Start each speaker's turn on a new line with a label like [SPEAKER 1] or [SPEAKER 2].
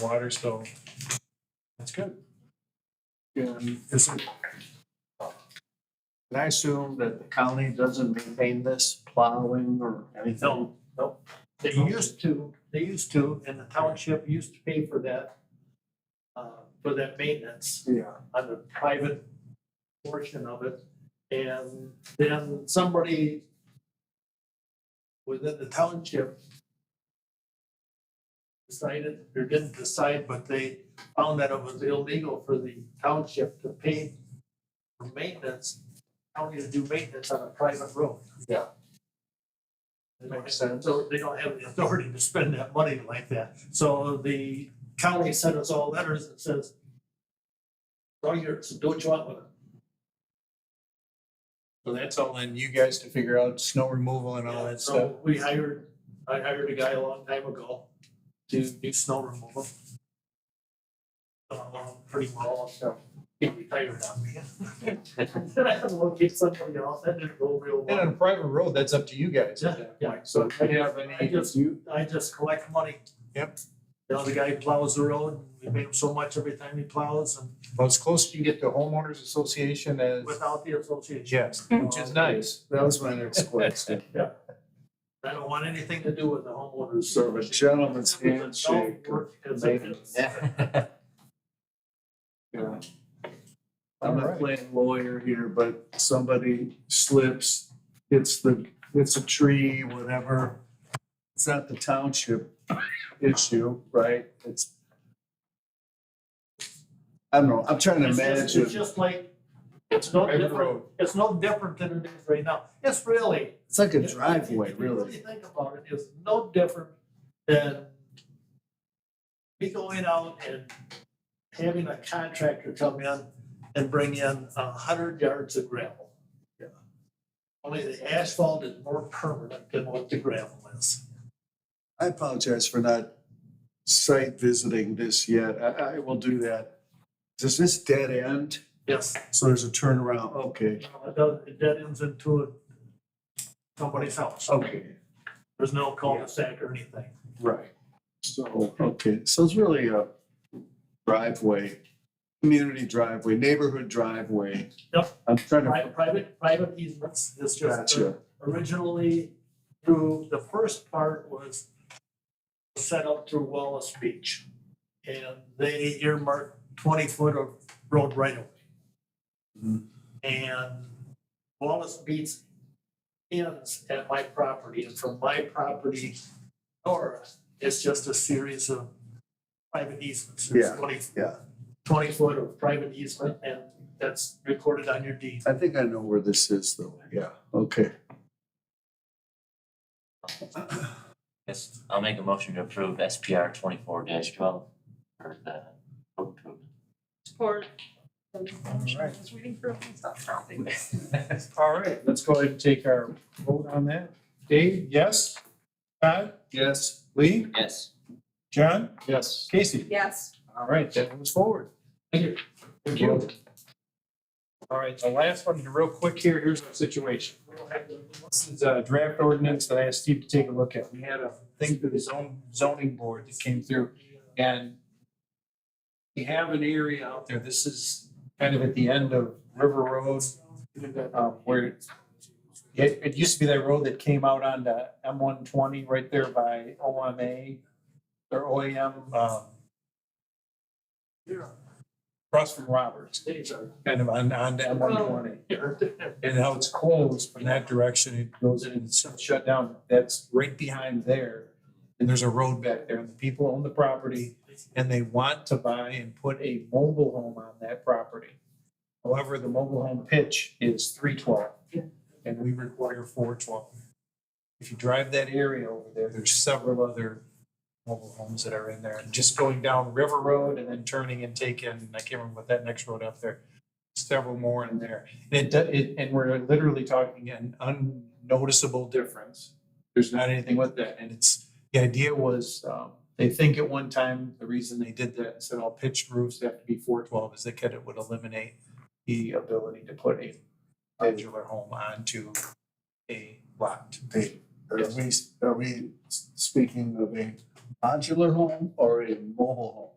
[SPEAKER 1] water, so that's good. And is it,
[SPEAKER 2] Can I assume that the county doesn't maintain this plowing or anything? Nope. They used to, they used to, and the township used to pay for that, uh, for that maintenance
[SPEAKER 1] yeah,
[SPEAKER 2] on the private portion of it. And then somebody within the township decided, or didn't decide, but they found that it was illegal for the township to pay for maintenance, county to do maintenance on a private road.
[SPEAKER 1] Yeah.
[SPEAKER 2] That makes sense. So they don't have the authority to spend that money like that. So the county sent us all letters that says, all yours, do what you want with it.
[SPEAKER 1] so that's all on you guys to figure out snow removal and all
[SPEAKER 2] Yeah,
[SPEAKER 1] that
[SPEAKER 2] so
[SPEAKER 1] stuff.
[SPEAKER 2] We hired, I hired a guy a long time ago to do snow removal. Uh, pretty well, so he retired on me. Then I had to locate somebody else, that didn't go real
[SPEAKER 1] And on
[SPEAKER 2] well.
[SPEAKER 1] a private road, that's up to you guys at that
[SPEAKER 2] Yeah, yeah.
[SPEAKER 1] point. So if you have
[SPEAKER 2] I
[SPEAKER 1] any,
[SPEAKER 2] just-
[SPEAKER 1] you,
[SPEAKER 2] I just collect money.
[SPEAKER 1] Yep.
[SPEAKER 2] You know, the guy plows the road, we pay him so much every time he plows and
[SPEAKER 1] well, as close as you get to homeowners association as,
[SPEAKER 2] without the association,
[SPEAKER 1] yes, which is nice.
[SPEAKER 3] That was my next question.
[SPEAKER 2] I don't want anything to do with the homeowners.
[SPEAKER 3] Sort of a
[SPEAKER 2] association.
[SPEAKER 3] gentleman's
[SPEAKER 2] It's a
[SPEAKER 3] handshake.
[SPEAKER 2] self-work, it's a-
[SPEAKER 3] maintenance. Yeah. I'm
[SPEAKER 1] Alright.
[SPEAKER 3] not playing lawyer here, but somebody slips, hits the, hits a tree, whatever. It's not the township issue, right? It's. I don't know, I'm trying to
[SPEAKER 2] It's just- It's
[SPEAKER 3] imagine,
[SPEAKER 2] just like, it's no
[SPEAKER 1] Private
[SPEAKER 2] different,
[SPEAKER 1] road.
[SPEAKER 2] it's no different than it is right now. It's really.
[SPEAKER 3] it's like a
[SPEAKER 2] if- if-
[SPEAKER 3] driveway,
[SPEAKER 2] if you
[SPEAKER 3] really.
[SPEAKER 2] Think about it, it's no different than me going out and having a contractor come in and bring in a hundred yards of gravel.
[SPEAKER 3] Yeah.
[SPEAKER 2] Only the asphalt is more permanent than what the gravel is.
[SPEAKER 3] I apologize for not site visiting this yet. I, I will do that. Does this dead end?
[SPEAKER 2] Yes,
[SPEAKER 3] So there's a turnaround, okay,
[SPEAKER 2] you know, it does, it dead ends into somebody's house.
[SPEAKER 3] okay.
[SPEAKER 2] There's no cul-de-sac or anything.
[SPEAKER 3] Right. So, okay, so it's really a driveway, community driveway, neighborhood driveway.
[SPEAKER 2] Yep.
[SPEAKER 3] I'm trying to,
[SPEAKER 2] Private, private, private easements, it's just
[SPEAKER 3] gotcha,
[SPEAKER 2] originally through, the first part was set up through Wallace Beach. And they earmarked twenty foot of road right away.
[SPEAKER 3] Mhm.
[SPEAKER 2] And Wallace Beach ends at my property, and from my property north, it's just a series of private easements. There's
[SPEAKER 3] Yeah,
[SPEAKER 2] 20
[SPEAKER 3] yeah.
[SPEAKER 2] Twenty foot of private easement, and that's recorded on your deed.
[SPEAKER 3] I think I know where this is though, yeah, okay.
[SPEAKER 4] Yes, I'll make a motion to approve SPR twenty-four twelve for the road
[SPEAKER 5] Support. I
[SPEAKER 1] right.
[SPEAKER 5] was waiting for him to stop talking.
[SPEAKER 4] improvement.
[SPEAKER 1] All right, let's go ahead and take our vote on that. Dave, yes? Todd?
[SPEAKER 3] Yes.
[SPEAKER 1] Lee?
[SPEAKER 4] Yes,
[SPEAKER 1] John?
[SPEAKER 3] Yes.
[SPEAKER 1] Casey?
[SPEAKER 5] Yes.
[SPEAKER 1] All right, that moves forward.
[SPEAKER 2] Thank you.
[SPEAKER 1] Thank you. All right, the last one, real quick here, here's our situation. This is a draft ordinance that I asked Steve to take a look at. We had a thing through the zone, zoning board that came through and we have an area out there, this is kind of at the end of River Road, um, where it, it used to be that road that came out onto M one twenty right there by OMA or OAM, um,
[SPEAKER 2] Here,
[SPEAKER 1] across from Roberts,
[SPEAKER 2] these are-
[SPEAKER 1] kind of on, on M one twenty.
[SPEAKER 2] here.
[SPEAKER 1] and how it's closed from that direction, it goes in and it's shut down, that's right behind there. And there's a road back there, and the people own the property, and they want to buy and put a mobile home on that property. However, the mobile home pitch is three twelve, and we require four twelve. If you drive that area over there, there's several other mobile homes that are in there, and just going down River Road and then turning and taking, I can't remember what that next road up there. Several more in there, and it, do- it, and we're literally talking an unnoticeable difference. There's not anything with that, and it's, the idea was, um, they think at one time, the reason they did that, and said all pitched roofs have to be four twelve, is they could, it would eliminate the ability to put a modular home onto a lot.
[SPEAKER 3] Are we, are we speaking of a
[SPEAKER 1] modular home or a mobile home?